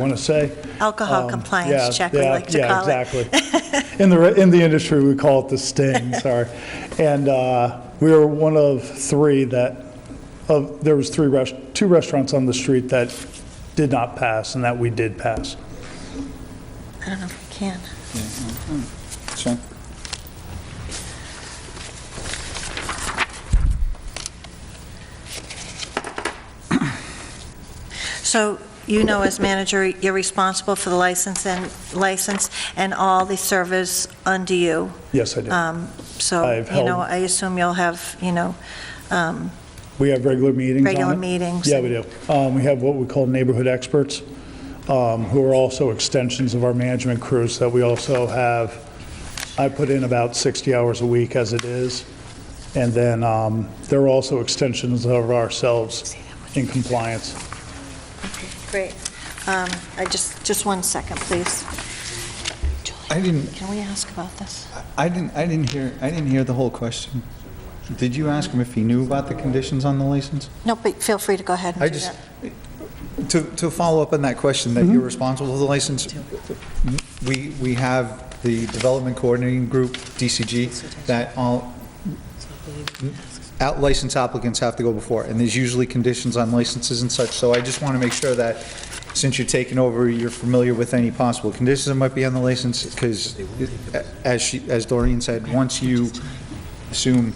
want to say. Alcohol Um, compliance yeah, check, we yeah, like to call it. Yeah, exactly. In the, re- in the industry, we call it the sting, sorry. And uh, we were one of three that, of, there was three, rest- two restaurants on the street that did not pass and that we did pass. I don't know if we can. Mm-hmm. Sure. So you know, as manager, you're responsible for the license and, license and all the servers under you. Yes, I did. Um, So, I've you know, held- I assume you'll have, you know, um, We have regular meetings on Regular it. meetings. Yeah, we do. Um, We have what we call neighborhood experts, um, who are also extensions of our management crews that we also have. I put in about 60 hours a week as it is, and then um, they're also extensions of ourselves in compliance. great. Um, I just, just one second, please. Julie, I didn't- Can we ask about this? I didn't, I didn't hear, I didn't hear the whole question. Did you ask him if he knew about the conditions on the license? No, but feel free to go ahead and I do just, that. Mm-hmm. to, to follow up on that question, that you're responsible for the license, we, we have the Development Coordinating Group, DCG, that all, out license applicants have to go before, and there's usually conditions on licenses and such, so I just want to make sure that, since you're taking over, you're familiar with any possible conditions that might be on the license, because as she, as Doreen said, once you assume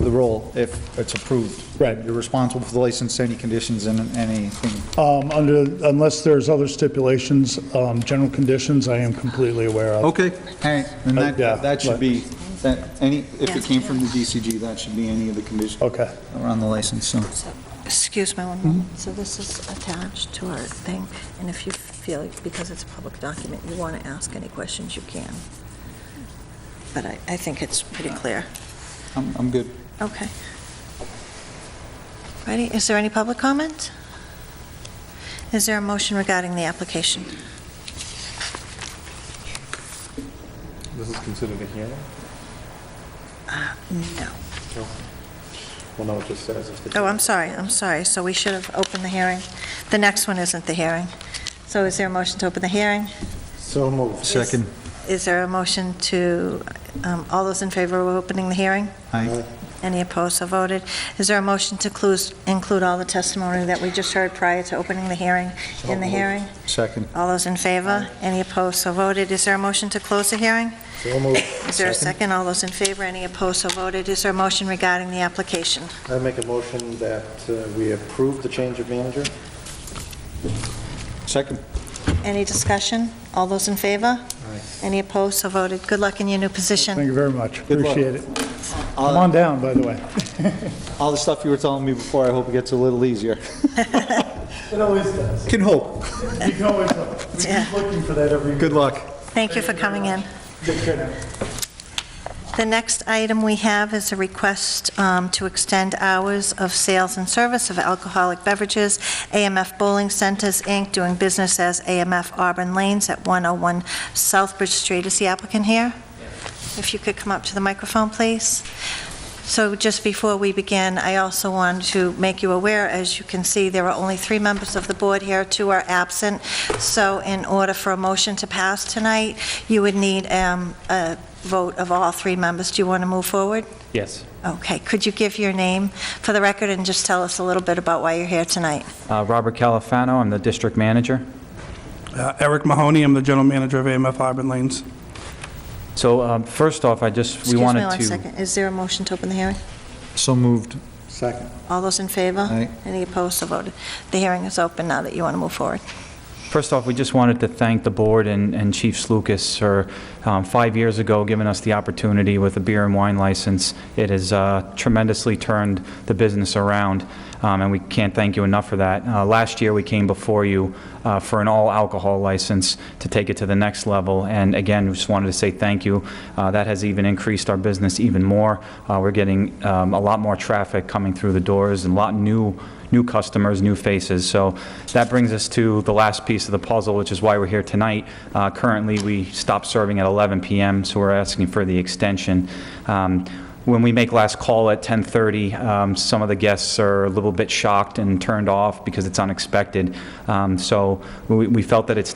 the role, if it's approved. Right. You're responsible for the license, any conditions, and anything Um, Under, unless there's other stipulations, um, general conditions, I am completely aware of. Okay, all right, then Uh, that, yeah, that should right. be, that, any, if Yes. it came from the DCG, that should be any of the conditions that Okay. were on the license, so. So, Excuse me one Mm-hmm. moment. So this is attached to our thing, and if you feel, because it's a public document, you want to ask any questions, you can. But I, I think it's pretty clear. I'm, I'm good. Okay. Ready, is there any public comment? Is there a motion regarding the application? This is considered a hearing? No. Well, no, it just says if the... Oh, I'm sorry, I'm sorry, so we should have opened the hearing. The next one isn't the hearing. So is there a motion to open the hearing? So moved. Second. Is there a motion to, um, all those in favor of opening the hearing? Aye. Any opposed, so voted. Is there a motion to clues- include all the testimony that we just heard prior to opening the hearing in the hearing? Second. All those in favor? Any opposed, so voted. Is there a motion to close the hearing? So moved. Is there a second? All those in favor? Any opposed, so voted. Is there a motion regarding the application? I make a motion that uh, we approve the change of manager. Second. Any discussion? All those in favor? Any opposed, so voted. Good luck in your new Thank position. you very much. Good luck. Appreciate it. Come All, on down, by the way. all the stuff you were telling me before, I hope it gets a little easier. It always does. Can hope. You can always, uh, we Yeah. keep looking for that every Good luck. Thank you for coming in. Take care now. The next item we have is a request um, to extend hours of sales and service of alcoholic beverages, AMF Bowling Centers, Inc., doing business as AMF Auburn Lanes at 101 Southbridge Street. Is the applicant here? If you could come up to the microphone, please. So just before we begin, I also want to make you aware, as you can see, there are only three members of the board here, two are absent. So in order for a motion to pass tonight, you would need um, a vote of all three members. Do you want to move forward? Yes. Okay, could you give your name for the record and just tell us a little bit about why you're here tonight? Uh, Robert Califano, I'm the district manager. Uh, Eric Mahoney, I'm the general manager of AMF Auburn Lanes. So um, first off, I just, we wanted to... Excuse me one second, is there a motion to open the hearing? So moved. Second. All those in favor? Aye. Any opposed, so voted. The hearing is open now that you want to move forward. First off, we just wanted to thank the board and and Chiefs Lucas for, um, five years ago, giving us the opportunity with a beer and wine license. It has uh, tremendously turned the business around, um, and we can't thank you enough for that. Uh, Last year, we came before you uh, for an all-alcohol license to take it to the next level, and again, we just wanted to say thank you. Uh, That has even increased our business even more. Uh, We're getting um, a lot more traffic coming through the doors, and a lot new new customers, new faces. So that brings us to the last piece of the puzzle, which is why we're here tonight. Uh, Currently, we stopped serving at 11 PM, so we're asking for the extension. Um, when we make last call at 10:30, um, some of the guests are a little bit shocked and turned off because it's unexpected. Um, So we we felt that it's